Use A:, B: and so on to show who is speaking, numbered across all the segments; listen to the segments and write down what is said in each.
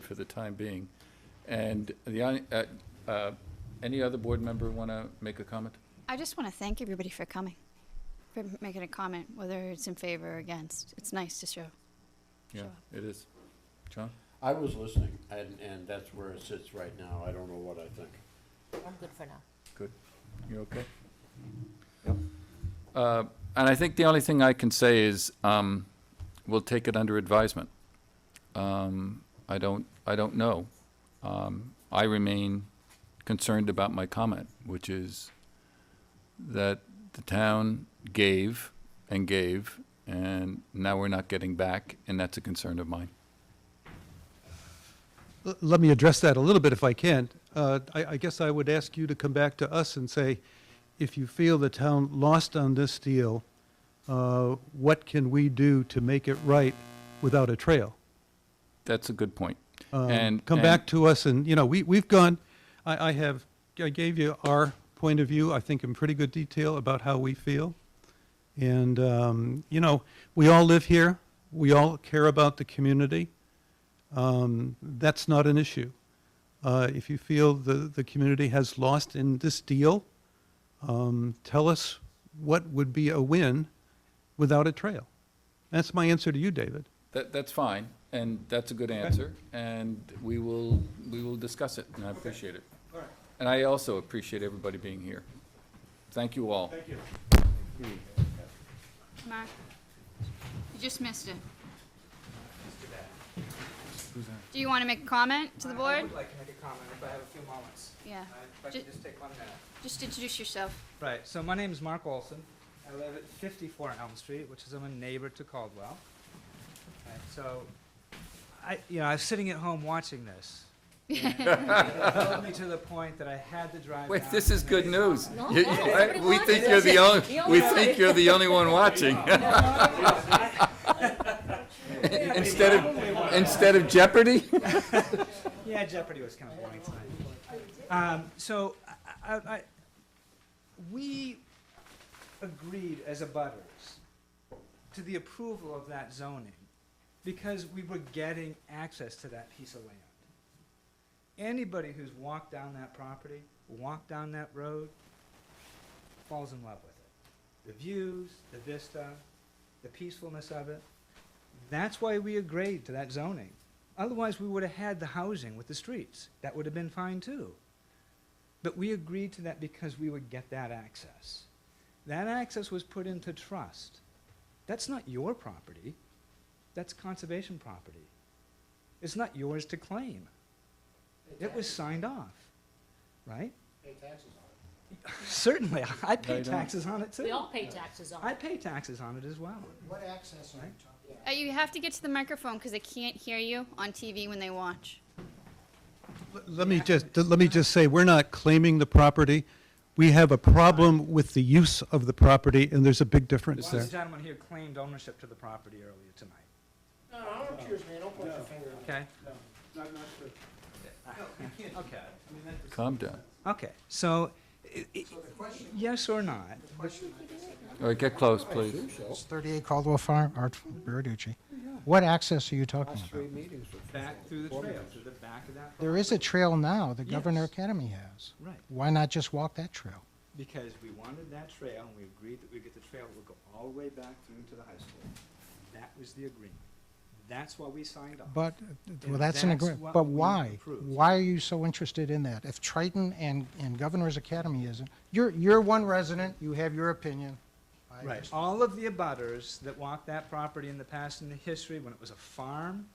A: for the time being. And the, only- uh, uh, any other board member want to make a comment?
B: I just want to thank everybody for coming, for making a comment, whether it's in favor or against. It's nice to show.
A: Yeah, it is. John?
C: I was listening, and, and that's where it sits right now. I don't know what I think.
D: I'm good for now.
A: Good. You okay? Uh, And I think the only thing I can say is, um, we'll take it under advisement. Um, I don't, I don't know. Um, I remain concerned about my comment, which is that the town gave and gave, and now we're not getting back, and that's a concern of mine.
E: L- Let me address that a little bit if I can. Uh, I I guess I would ask you to come back to us and say, if you feel the town lost on this deal, uh, what can we do to make it right without a trail?
A: That's a good point.
E: Um,
A: And-
E: Come
A: and-
E: back to us and, you know, we, we've gone, I, I have, I gave you our point of view, I think in pretty good detail about how we feel. And, um, you know, we all live here, we all care about the community. Um, that's not an issue. Uh, if you feel the, the community has lost in this deal, um, tell us what would be a win without a trail. That's my answer to you, David.
A: That, that's fine, and that's a good answer, and we will, we will discuss it, and I appreciate it.
E: All right.
A: And I also appreciate everybody being here. Thank you all.
E: you.
B: Mark, you just missed it. Do you want to make a comment to the
F: I- I
B: board?
F: would like to make a comment if I have a few moments. Uh,
B: Yeah.
F: If I
B: Ju-
F: could just take one minute.
B: Just introduce yourself.
F: Right, so my name is Mark Olson. I live at 54 Elm Street, which is I'm a neighbor to Caldwell. Right, so, I, you know, I was sitting at home watching this. and It drove me to the point that I had to drive
A: Wait,
F: down
A: this
F: to
A: is
F: the
A: good
F: neighbor-
A: news.
D: No,
A: You- you-
D: everybody
A: We
D: watches
A: think you're the
D: it.
A: only,
D: The
A: we
D: only
A: think you're the only one watching. Instead of, instead of Jeopardy?
F: Yeah, Jeopardy was kind of boring tonight. Um, so, I, I, I, we agreed as a butters to the approval of that zoning because we were getting access to that piece of land. Anybody who's walked down that property, walked down that road, falls in love with it. The views, the vista, the peacefulness of it. That's why we agreed to that zoning. Otherwise, we would have had the housing with the streets. That would have been fine too. But we agreed to that because we would get that access. That access was put into trust. That's not your property. That's conservation property. It's not yours to claim. It was signed off, right? Pay taxes on it. Certainly, I
A: No,
F: pay
A: you don't.
F: taxes on it
D: We
F: too.
D: all pay taxes on
F: I
D: it.
F: pay taxes on it as well.
G: What access are you talking about?
B: Uh, you have to get to the microphone because they can't hear you on TV when they watch.
E: L- Let me just, let me just say, we're not claiming the property. We have a problem with the use of the property, and there's a big difference
F: One of
E: there.
F: the gentlemen here claimed ownership to the property earlier tonight,
G: No, no, don't accuse me, don't put your finger on it.
F: okay?
E: Okay.
A: Calm down.
F: Okay, so, i- i-
G: So the question,
F: yes or not,
A: All right, get close, please.
G: it's 38 Caldwell Farm, Art Verducci. What access are you talking about?
F: back through the trail, to the back of that.
G: There is a trail now that
F: Yes.
G: Governor Academy has.
F: Right,
G: Why not just walk that trail?
F: because we wanted that trail, and we agreed that we get the trail that would go all the way back through to the high school. That was the agreement. That's why we signed off.
G: But, well, that's an
F: that's
G: agreement,
F: what
G: but
F: we
G: why?
F: approved.
G: Why are you so interested in that? If Triton and, and Governor's Academy isn't, you're, you're one resident, you have your opinion. I
F: Right,
G: just-
F: all of the abutters that walked that property in the past and the history, when it was a farm,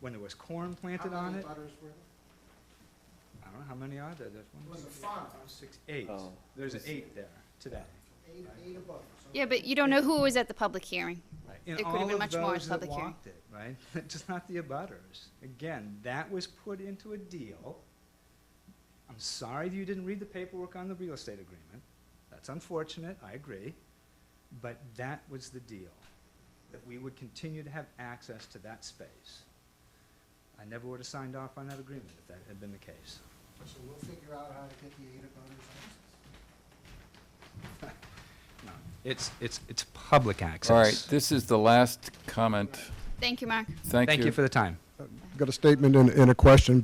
F: when there was corn planted
G: How
F: on
G: many
F: it,
G: butters were there?
F: I don't know how many are there, there's one,
G: It was
F: two,
G: a
F: three,
G: farm.
F: four, five, six, eight.
A: Oh.
F: There's eight there today.
G: Eight, eight of butters.
B: Yeah, but you don't know who was at the public hearing.
F: And
B: It could've
F: all
B: been
F: of
B: much more
F: those that
B: public hearing.
F: walked it, Right? Just not the abutters. Again, that was put into a deal. I'm sorry that you didn't read the paperwork on the real estate agreement. That's unfortunate, I agree. But that was the deal, that we would continue to have access to that space. I never would have signed off on that agreement if that had been the case.
G: So we'll figure out how to get the eight of butters access.
F: No, It's, it's, it's public access.
A: All right, this is the last comment.
B: Thank you, Mark.
A: Thank you.
F: Thank you for the time.
H: Got a statement and, and a question.